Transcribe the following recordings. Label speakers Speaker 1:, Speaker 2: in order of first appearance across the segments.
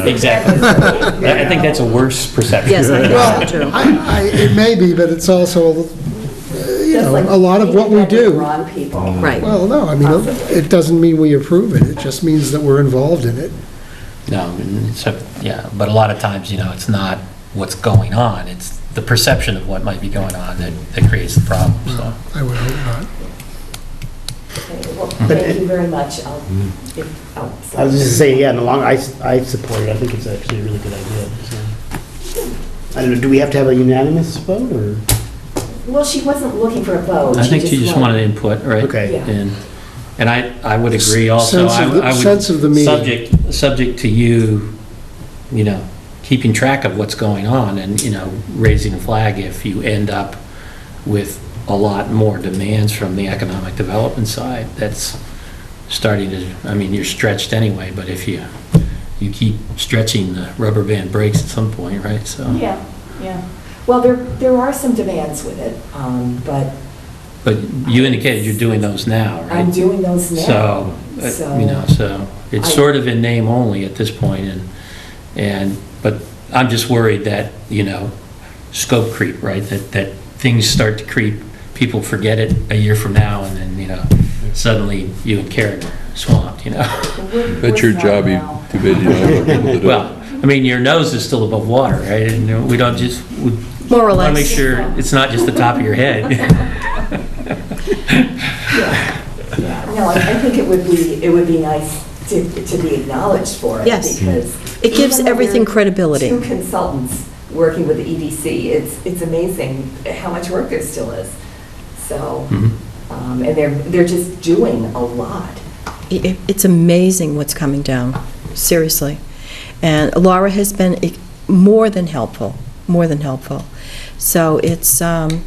Speaker 1: Exactly. I I think that's a worse perception.
Speaker 2: Yes, I think so
Speaker 3: Well,
Speaker 2: too.
Speaker 3: I, I, it may be, but it's also, uh, you know, a lot of what we do.
Speaker 4: Wrong
Speaker 5: Oh.
Speaker 4: people.
Speaker 2: Right.
Speaker 3: Well, no, I mean, it doesn't mean we approve it, it just means that we're involved in it.
Speaker 5: No, and so, yeah, but a lot of times, you know, it's not what's going on, it's the perception of what might be going on that, that creates the problem, so.
Speaker 3: I would hope
Speaker 4: Okay, well, Thank you very much. I'll- if- oh,
Speaker 6: I
Speaker 4: sorry.
Speaker 6: was just saying, yeah, in the long, I, I support it, I think it's actually a really good idea. so. I don't know, do we have to have a unanimous vote, or?
Speaker 4: Well, she wasn't looking for a vote.
Speaker 5: I think you just wanted input, right?
Speaker 6: Okay.
Speaker 4: Yeah.
Speaker 5: And, and I, I would agree also.
Speaker 3: Sense
Speaker 5: I
Speaker 3: of the-
Speaker 5: I would-
Speaker 3: sense of the meeting.
Speaker 5: Subject, subject to you, you know, keeping track of what's going on and, you know, raising a flag if you end up with a lot more demands from the economic development side. That's starting to, I mean, you're stretched anyway, but if you, you keep stretching, the rubber band breaks at some point, right? So,
Speaker 4: Yeah, yeah. Well, there, there are some demands with it, um, but
Speaker 5: but you indicated you're doing those now, right?
Speaker 4: I'm doing those now.
Speaker 5: So, uh,
Speaker 4: So-
Speaker 5: you know, so it's
Speaker 4: I-
Speaker 5: sort of in name only at this point, and, and, but I'm just worried that, you know, scope creep, right? That, that things start to creep, people forget it a year from now, and then, you know, suddenly you and Karen are swamped, you know?
Speaker 4: We're-
Speaker 7: That's your
Speaker 4: we're
Speaker 7: job, you
Speaker 4: now.
Speaker 7: too bad you don't have people to do it.
Speaker 5: Well, I mean, your nose is still above water, right? And you know, we don't just, we
Speaker 2: More or
Speaker 5: want to make
Speaker 2: less.
Speaker 5: sure it's not just the top of your head.
Speaker 4: Yeah, no, I I think it would be, it would be nice to, to be acknowledged for it.
Speaker 2: Yes.
Speaker 4: because
Speaker 2: It gives
Speaker 4: even though
Speaker 2: everything
Speaker 4: we're
Speaker 2: credibility.
Speaker 4: Two consultants working with the EDC, it's, it's amazing how much work there still is. So,
Speaker 5: Mhm.
Speaker 4: um, and they're, they're just doing a lot.
Speaker 2: It- it- It's amazing what's coming down, seriously. And Laura has been e- more than helpful, more than helpful. So it's, um,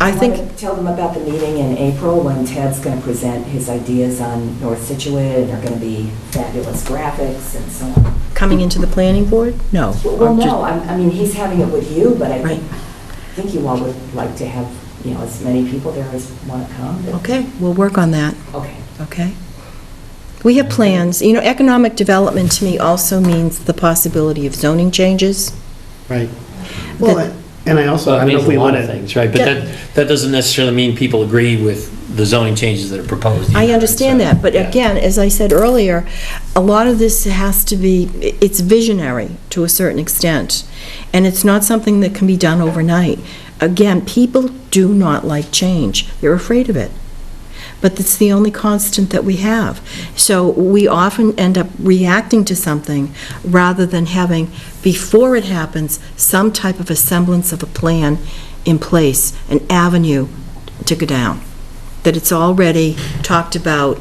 Speaker 2: I
Speaker 4: wanna
Speaker 2: think,
Speaker 4: Tell them about the meeting in April when Ted's going to present his ideas on North Situate, and there are going to be fabulous graphics and so on.
Speaker 2: coming into the planning board? No.
Speaker 4: Well,
Speaker 2: I'm just-
Speaker 4: no, I'm- I mean, he's having it with you, but I
Speaker 2: Right.
Speaker 4: think, I think you all would like to have, you know, as many people there as want to come. but-
Speaker 2: Okay, we'll work on that.
Speaker 4: Okay.
Speaker 2: Okay. We have plans. You know, economic development to me also means the possibility of zoning changes.
Speaker 6: Right. Well, and I also,
Speaker 5: So
Speaker 6: I
Speaker 5: it
Speaker 6: don't know
Speaker 5: means
Speaker 6: if
Speaker 5: a
Speaker 6: we
Speaker 5: lot
Speaker 6: want
Speaker 5: of
Speaker 6: to.
Speaker 5: things, right? But
Speaker 2: Yeah.
Speaker 5: that, that doesn't necessarily mean people agree with the zoning changes that are proposed. either,
Speaker 2: I
Speaker 5: right?
Speaker 2: understand
Speaker 5: So,
Speaker 2: that, but
Speaker 5: yeah.
Speaker 2: again, as I said earlier, a lot of this has to be, it's visionary to a certain extent, and it's not something that can be done overnight. Again, people do not like change. They're afraid of it. But it's the only constant that we have. So we often end up reacting to something rather than having, before it happens, some type of a semblance of a plan in place, an avenue to go down that it's already talked about,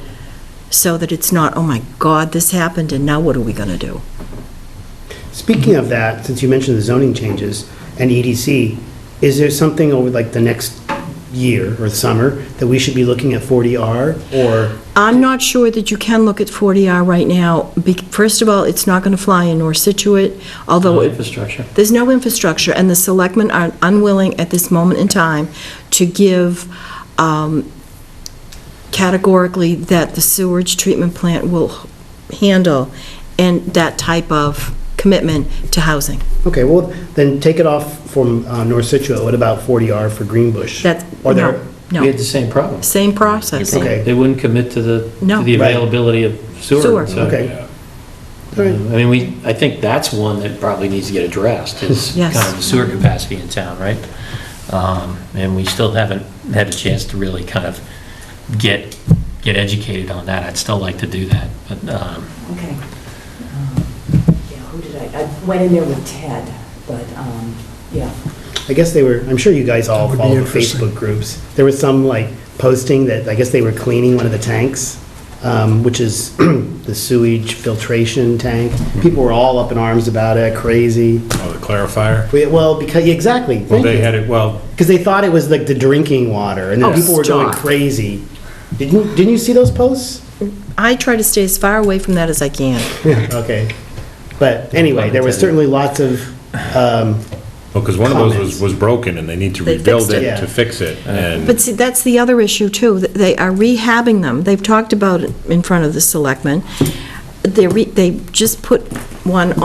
Speaker 2: so that it's not, oh my God, this happened, and now what are we going to do?
Speaker 6: Speaking of that, since you mentioned the zoning changes and EDC, is there something over like the next year or summer that we should be looking at 40R? Or,
Speaker 2: I'm not sure that you can look at 40R right now. Be- First of all, it's not going to fly in North Situate, although...
Speaker 5: No
Speaker 2: it-
Speaker 5: infrastructure.
Speaker 2: There's no infrastructure, and the selectmen are unwilling at this moment in time to give um, categorically that the sewage treatment plant will handle and that type of commitment to housing.
Speaker 6: okay, well, then take it off from uh, North Situate, what about 40R for Greenbush?
Speaker 2: That's,
Speaker 6: Or there-
Speaker 2: no,
Speaker 5: We had
Speaker 2: no.
Speaker 5: the same problem.
Speaker 2: Same process.
Speaker 6: Okay.
Speaker 5: They wouldn't commit to the,
Speaker 2: No.
Speaker 5: to the
Speaker 6: Right.
Speaker 5: availability of
Speaker 2: Sewer.
Speaker 5: sewer. so,
Speaker 6: Okay.
Speaker 5: uh,
Speaker 6: All
Speaker 5: I
Speaker 6: right.
Speaker 5: mean, we, I think that's one that probably needs to get addressed, is
Speaker 2: Yes.
Speaker 5: kind of the sewer capacity in town, right? Um, And we still haven't had a chance to really kind of get, get educated on that. I'd still like to do that, but, um,
Speaker 4: Okay. Um, Yeah, who did I, I went in there with Ted, but, um, yeah.
Speaker 6: I guess they were, I'm sure you guys
Speaker 3: That
Speaker 6: all
Speaker 3: would be
Speaker 6: follow the
Speaker 3: interesting.
Speaker 6: Facebook groups. There was some like posting that, I guess they were cleaning one of the tanks, um, which is the sewage filtration tank. People were all up in arms about it, crazy.
Speaker 8: Oh, the clarifier?
Speaker 6: We- Well, because, exactly,
Speaker 8: Well, they had it, well,
Speaker 6: Because they thought it was like the drinking water, and then
Speaker 2: Oh,
Speaker 6: people were going
Speaker 2: stop.
Speaker 6: crazy. Didn't, didn't you see those posts?
Speaker 2: I try to stay as far away from that as I can.
Speaker 6: Okay. But anyway, there was certainly lots of, um,
Speaker 8: because one of those
Speaker 6: Comments.
Speaker 8: was, was broken, and they need to
Speaker 2: They
Speaker 8: rebuild
Speaker 2: fixed
Speaker 6: it.
Speaker 8: it
Speaker 6: Yeah.
Speaker 8: to fix it, and...
Speaker 2: But see, that's the other issue, too. that They are rehabbing them. They've talked about it in front of the selectmen. they, re- they just put one